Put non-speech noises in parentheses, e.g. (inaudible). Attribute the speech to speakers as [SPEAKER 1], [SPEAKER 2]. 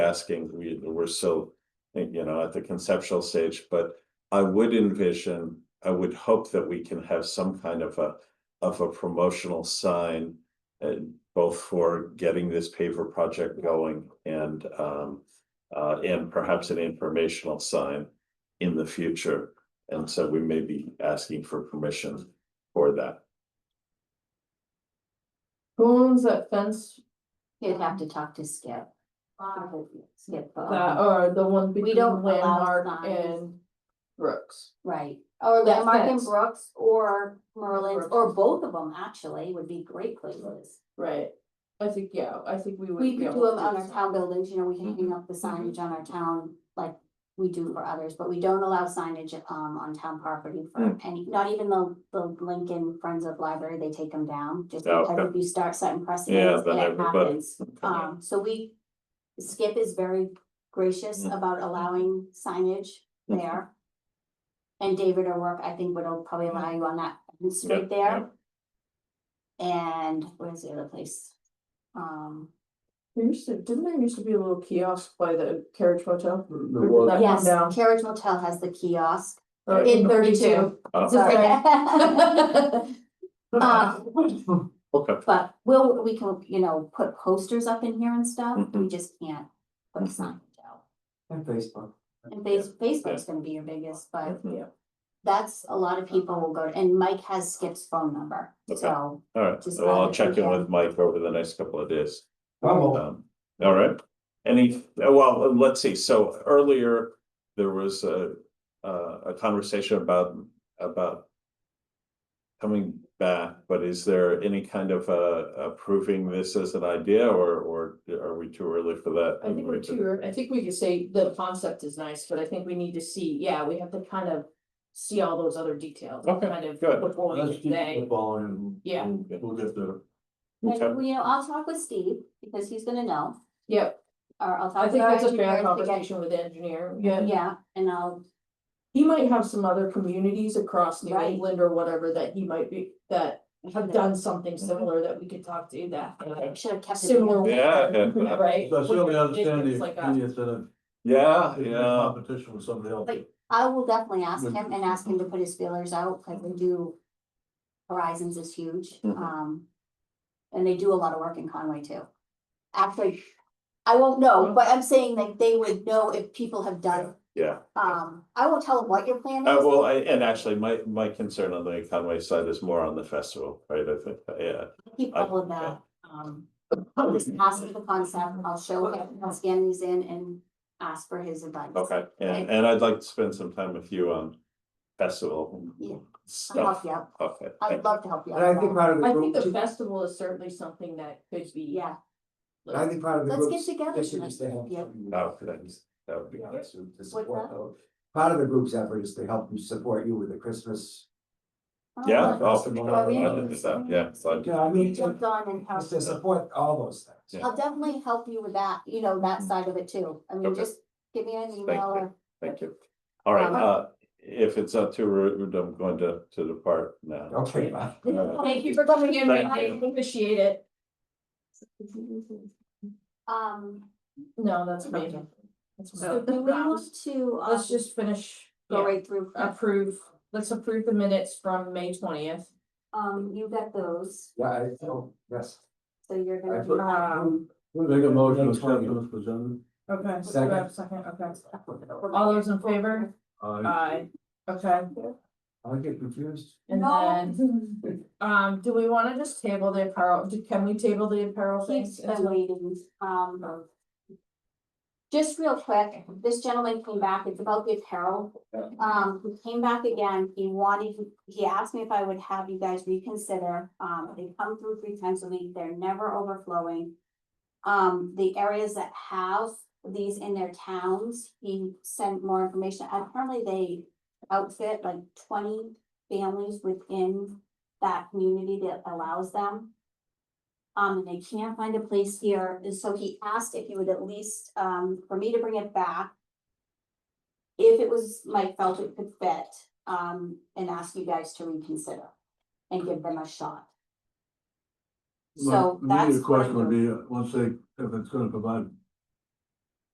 [SPEAKER 1] asking, we, we're still, you know, at the conceptual stage, but I would envision, I would hope that we can have some kind of a, of a promotional sign and both for getting this paver project going and, um, uh, and perhaps an informational sign in the future. And so we may be asking for permission for that.
[SPEAKER 2] Who owns that fence?
[SPEAKER 3] You'd have to talk to Skip. Skip,
[SPEAKER 2] That,
[SPEAKER 3] uh,
[SPEAKER 2] or Um, the one
[SPEAKER 3] We
[SPEAKER 2] between
[SPEAKER 3] don't allow
[SPEAKER 2] Landmark
[SPEAKER 3] signs.
[SPEAKER 2] and Brooks?
[SPEAKER 3] right, or
[SPEAKER 2] That
[SPEAKER 3] Landmark and
[SPEAKER 2] fence.
[SPEAKER 3] Brooks, or Merlin's,
[SPEAKER 2] Brooks.
[SPEAKER 3] or both of them actually would be great places.
[SPEAKER 2] Right, I think, yeah, I think we would.
[SPEAKER 3] We
[SPEAKER 2] be
[SPEAKER 3] could
[SPEAKER 2] able
[SPEAKER 3] do
[SPEAKER 2] to
[SPEAKER 3] them on our
[SPEAKER 2] that.
[SPEAKER 3] town buildings, you know, we can hang up the
[SPEAKER 2] Mhm.
[SPEAKER 3] signage on our town, like we do for others, but we don't allow signage um on town property for any, not even the the Lincoln Friends of Library, they take them down. Just
[SPEAKER 1] Oh,
[SPEAKER 3] because
[SPEAKER 1] okay.
[SPEAKER 3] if you start setting
[SPEAKER 1] Yeah,
[SPEAKER 3] precedents,
[SPEAKER 1] then
[SPEAKER 3] it
[SPEAKER 1] everybody-
[SPEAKER 3] happens. Um, so we, Skip is very gracious
[SPEAKER 1] Mm.
[SPEAKER 3] about allowing signage
[SPEAKER 1] Mhm.
[SPEAKER 3] there. And David or work, I think would probably allow you on that fence
[SPEAKER 1] Yeah,
[SPEAKER 3] right there. And where's the other place? Um.
[SPEAKER 2] There used to, didn't there used to be a little kiosk by the carriage motel? Or did
[SPEAKER 4] was.
[SPEAKER 2] that come
[SPEAKER 3] Yes,
[SPEAKER 2] down?
[SPEAKER 3] Carriage Motel has the kiosk
[SPEAKER 2] Oh,
[SPEAKER 3] in thirty-two.
[SPEAKER 1] Oh.
[SPEAKER 3] Sorry.
[SPEAKER 2] (laughs) Uh,
[SPEAKER 3] Um,
[SPEAKER 1] Okay.
[SPEAKER 3] (laughs) But we'll, we can, you know, put posters up in here and stuff, we
[SPEAKER 1] Mhm.
[SPEAKER 3] just can't put a sign out.
[SPEAKER 4] And Facebook.
[SPEAKER 3] And Face- Facebook's gonna be your biggest, but that's, a lot of people will go, and Mike has Skip's phone number,
[SPEAKER 1] Okay.
[SPEAKER 3] so.
[SPEAKER 1] All right,
[SPEAKER 3] Just
[SPEAKER 1] well, I'll
[SPEAKER 3] add it to
[SPEAKER 1] check in
[SPEAKER 3] that.
[SPEAKER 1] with Mike over the next couple of days.
[SPEAKER 4] Well,
[SPEAKER 1] Um, all right, any, uh, well, let's see, so earlier, there was a, uh, a conversation about, about. Coming back, but is there any kind of uh approving this as an idea or or are we too early for that?
[SPEAKER 2] I think we're too, ear- I think we could say the concept is nice, but I think we need to see, yeah, we have to kind of see all those other details.
[SPEAKER 1] Okay,
[SPEAKER 2] Kind of
[SPEAKER 1] good.
[SPEAKER 2] before we
[SPEAKER 4] let's
[SPEAKER 2] get
[SPEAKER 4] keep
[SPEAKER 2] there.
[SPEAKER 4] the ball and
[SPEAKER 2] Yeah.
[SPEAKER 4] we'll- We'll get there.
[SPEAKER 1] Okay.
[SPEAKER 3] And, well, you know, I'll talk with Steve, because he's gonna know,
[SPEAKER 2] Yep,
[SPEAKER 3] or I'll
[SPEAKER 2] I
[SPEAKER 3] talk with
[SPEAKER 2] think
[SPEAKER 3] our
[SPEAKER 2] that's a fair
[SPEAKER 3] engineers to get,
[SPEAKER 2] conversation with the engineer, yeah.
[SPEAKER 3] yeah, and I'll,
[SPEAKER 2] He might have some other communities across New
[SPEAKER 3] Right.
[SPEAKER 2] England or whatever that he might be, that have done something similar that we could talk Mm-hmm. to that.
[SPEAKER 3] I should have kept it.
[SPEAKER 2] Similar.
[SPEAKER 1] Yeah, yeah.
[SPEAKER 2] (laughs) Right?
[SPEAKER 4] So I certainly understand
[SPEAKER 2] It's
[SPEAKER 4] the
[SPEAKER 2] like uh, a-
[SPEAKER 4] opinions that
[SPEAKER 1] Yeah,
[SPEAKER 4] have
[SPEAKER 1] yeah,
[SPEAKER 4] competition with somebody else.
[SPEAKER 3] Like- I will definitely ask
[SPEAKER 4] Would-
[SPEAKER 3] him and ask him to put his feelers out, cause we do. Horizons is huge,
[SPEAKER 1] Mhm.
[SPEAKER 3] um, and they do a lot of work in Conway too. Actually, I won't
[SPEAKER 1] Oh.
[SPEAKER 3] know, but I'm saying that they would know if people have done,
[SPEAKER 1] yeah,
[SPEAKER 3] um, I won't tell them what your plan
[SPEAKER 1] uh,
[SPEAKER 3] is.
[SPEAKER 1] well, I, and actually, my my concern on the Conway side is more on the festival, right, I think, yeah.
[SPEAKER 3] Keep
[SPEAKER 1] I-
[SPEAKER 3] all of
[SPEAKER 1] yeah.
[SPEAKER 3] that, um, I'll just ask him the concept, I'll show him, I'll scan these in and ask for his advice.
[SPEAKER 1] Okay, and,
[SPEAKER 3] Okay.
[SPEAKER 1] and I'd like to spend some time with you on festival
[SPEAKER 3] Yeah. I'll help
[SPEAKER 1] stuff.
[SPEAKER 3] you out,
[SPEAKER 1] Okay,
[SPEAKER 3] I'd love to help you out.
[SPEAKER 5] And I think part of the
[SPEAKER 2] I think
[SPEAKER 5] group,
[SPEAKER 2] the
[SPEAKER 5] too-
[SPEAKER 2] festival is certainly something that could be.
[SPEAKER 3] Yeah,
[SPEAKER 5] and I think part of the
[SPEAKER 3] let's
[SPEAKER 5] group.
[SPEAKER 3] get together.
[SPEAKER 5] issue is to
[SPEAKER 3] tonight.
[SPEAKER 5] help
[SPEAKER 3] Yeah.
[SPEAKER 5] you-
[SPEAKER 1] Oh, thanks. that would be
[SPEAKER 5] Yeah,
[SPEAKER 1] nice.
[SPEAKER 5] to- to
[SPEAKER 3] What's
[SPEAKER 5] support
[SPEAKER 3] that?
[SPEAKER 5] those. Part of the group's effort is to help you support you with the Christmas.
[SPEAKER 3] Oh,
[SPEAKER 1] Yeah,
[SPEAKER 3] nice.
[SPEAKER 1] oh, for
[SPEAKER 5] Well,
[SPEAKER 1] sure. I
[SPEAKER 3] we-
[SPEAKER 1] didn't do that, yeah, so I-
[SPEAKER 5] Yeah, I mean, to-
[SPEAKER 3] Jumped on and helped.
[SPEAKER 5] it's to support all those things.
[SPEAKER 1] Yeah.
[SPEAKER 3] I'll definitely help you with that, you know,
[SPEAKER 2] Mm.
[SPEAKER 3] that side of it too. I mean,
[SPEAKER 1] Okay.
[SPEAKER 3] just give me an email
[SPEAKER 1] you.
[SPEAKER 3] or, (laughs)
[SPEAKER 1] thank you. All right,
[SPEAKER 3] Uh-huh.
[SPEAKER 1] uh, if it's not too rude, I'm going to, to depart now.
[SPEAKER 5] Okay, bye.
[SPEAKER 1] Uh,
[SPEAKER 2] Thank you for coming in,
[SPEAKER 1] Thank
[SPEAKER 2] I
[SPEAKER 1] you.
[SPEAKER 2] appreciate it.
[SPEAKER 3] um,
[SPEAKER 2] No, that's amazing. That's
[SPEAKER 3] so
[SPEAKER 2] amazing.
[SPEAKER 3] do we want to, uh,
[SPEAKER 2] Let's just finish,
[SPEAKER 3] go
[SPEAKER 2] yeah,
[SPEAKER 3] right through,
[SPEAKER 2] approve, let's approve the minutes from May twentieth.
[SPEAKER 3] um, you got those,
[SPEAKER 5] Yeah, I, feel- yes.
[SPEAKER 3] so you're
[SPEAKER 5] I put-
[SPEAKER 3] gonna. um,
[SPEAKER 4] Make a motion to accept
[SPEAKER 5] Twenty.
[SPEAKER 4] those presented.
[SPEAKER 2] Okay.
[SPEAKER 5] Second.
[SPEAKER 2] Second, okay. All those in favor? Aye. Okay,
[SPEAKER 5] I get confused.
[SPEAKER 2] and
[SPEAKER 3] No.
[SPEAKER 2] then, um, do we wanna just table the apparel, do- can we table the apparel
[SPEAKER 3] Keith's
[SPEAKER 2] things?
[SPEAKER 3] been waiting, um. Just real quick, this gentleman came back, it's about the apparel.
[SPEAKER 5] Yeah.
[SPEAKER 3] Um, he came back again, he wanted, he asked me if I would have you guys reconsider, um, they come through three times a week, they're never overflowing. Um, the areas that have these in their towns, he sent more information, apparently they outfit like twenty families within that community that allows them. Um, and they can't find a place here, and so he asked if you would at least, um, for me to bring it back. If it was, Mike felt it could fit, um, and ask you guys to reconsider and give them a shot. So
[SPEAKER 4] My
[SPEAKER 3] that's.
[SPEAKER 4] immediate question
[SPEAKER 3] what I'm
[SPEAKER 4] would be, uh, once they, if it's gonna provide